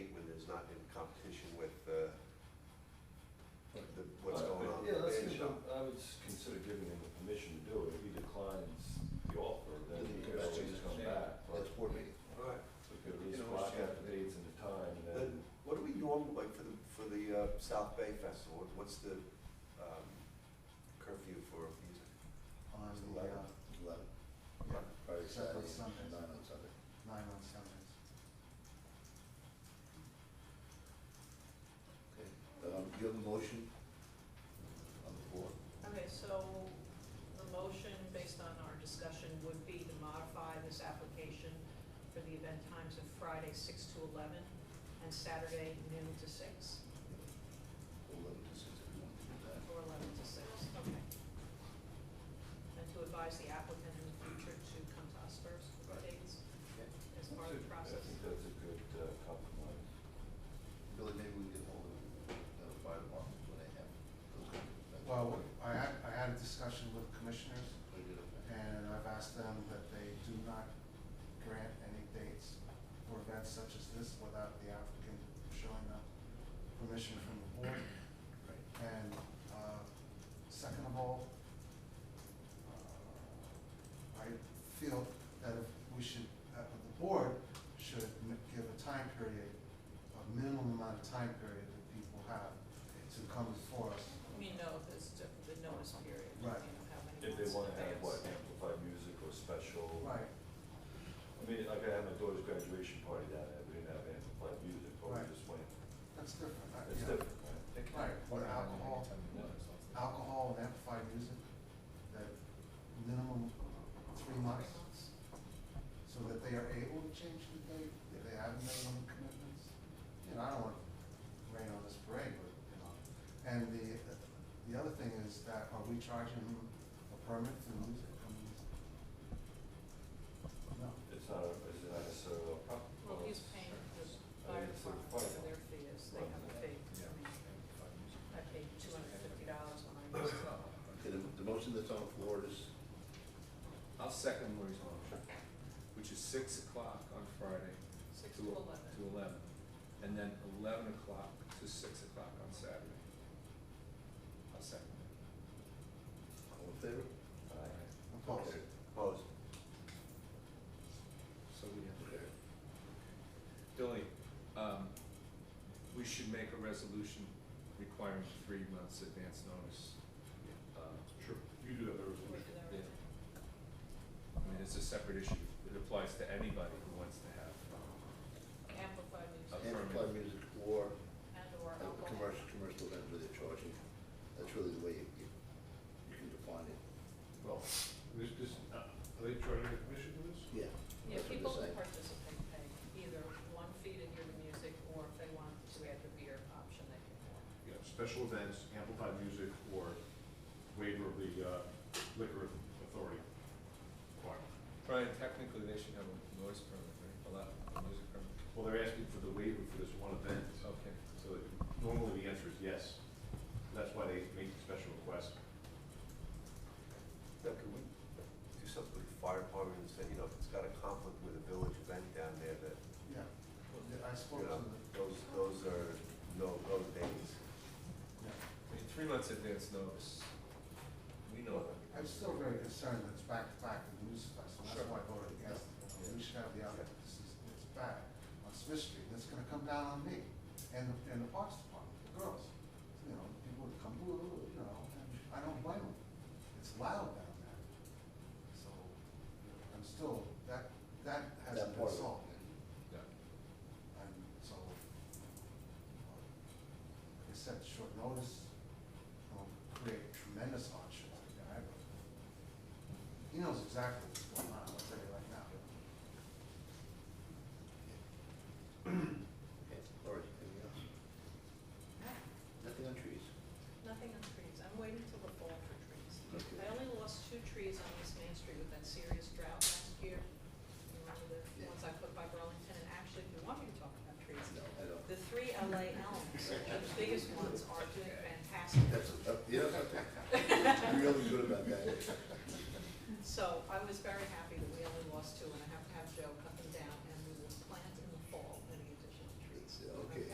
uh, uh, South Bay Festival, what's the um, curfew for music? on It's the, uh, eleven. eleven, Yeah. Friday, Except Saturday, for and Sundays. nine on Sunday. nine on Sundays. Okay, um, do you have a motion on the floor? Okay, so the motion, based on our discussion, would be to modify this application for the event times of Friday, six to eleven, and Saturday, noon to six, Eleven to six, if you want to do that. or eleven to six, okay. And to advise the applicant in the future to come to us first for Right. dates Okay. as part of the I process. think that's a good uh, compromise. Billy, maybe we can hold it, uh, five o'clock when they have. those kind of events. Well, I had, I had a discussion with commissioners, They did okay. and I've asked them that they do not grant any dates for events such as this without the applicant showing up permission from the board. Right. And, uh, second of all, uh, I feel that if we should, that the board should m- give a time period, a minimum amount of time period that people have to come before us. We know this, the notice period, you know, Right. how many months in If they wanna have advance. what, amplified music or special? Right, I mean, like I had my daughter's graduation party down there, we didn't have amplified music, but we Right. just went, that's different. I- it's yeah. different, right? They can- Right, for alcohol. Anytime you want, it's not- Alcohol and amplified music, that minimum three months, Three months. so that they are able to change the date, if they have minimum commitments. You know, I don't want to rain on this parade, but, you know. And the, the other thing is that are we charging them a permit for music? I mean, No. It's not, a- it's not necessarily a problem. Well, he's paying the fire department, so their fee is, they have a fee. I mean, I paid two hundred and fifty dollars when I used to. Okay, the, the motion that's on the floor is, I'll second Lori's motion, which is six o'clock on Friday Six to to eleven. to eleven, and then eleven o'clock to six o'clock on Saturday. I'll second it. all in favor? Aye. Opposed? Opposed? So we have there. Billy, um, we should make a resolution requiring three months advance notice. Uh, Sure, you do have a resolution. Yeah. I mean, it's a separate issue, it applies to anybody who wants to have, Amplified music Amplified music or and or a alcohol. Uh, commercial, commercial event where they're charging, that's really the way you, you you can define it. Well, this, this, uh, are they charging the commission for this? Yeah. Yeah, that's what people they're who saying. participate pay either one fee to hear the music, or if they want to add the beer option, they can. You know, special events, amplified music, or waiver of the uh, liquor authority requirement. Brian, technically, they should have a noise permit, right, a lot, a music permit, Well, they're asking for the waiver for this one event, okay. so normally the answer is yes. That's why they make the special request. Now, can we do something with the fire department and say, you know, if it's got a conflict with a village event down there that, Yeah. I spoke you to know, the, those, those are no-go days. yeah. I mean, three months advance notice, we know that. I'm still very concerned that it's back to back to the news festival, that's why I voted against it. You know, We should have the other, this is, it's back on Smith Street, and it's gonna come down on me and, the- and the parks department, the girls. You know, people would come, "Ooh, ooh," you know, and I don't blame them, it's loud down there. So, you know, I'm still, that, that That hasn't been part of it. solved, Yeah. and so, uh, like I said, short notice will create tremendous hardship on the guy, but he knows exactly what's going on, I'll tell you right now. Okay, all right, anything else? Nothing on trees? Ah, Nothing on trees, I'm waiting till the fall for trees. Okay. I only lost two trees on East Main Street with that serious drought last year. You remember the Yeah. ones I put by Burlington, and actually, if you want me to talk about trees, No, I don't. the three LA elms, the biggest ones are doing fantastic. That's, uh, yeah, I'm really good about that. So I was very happy that we only lost two, and I have to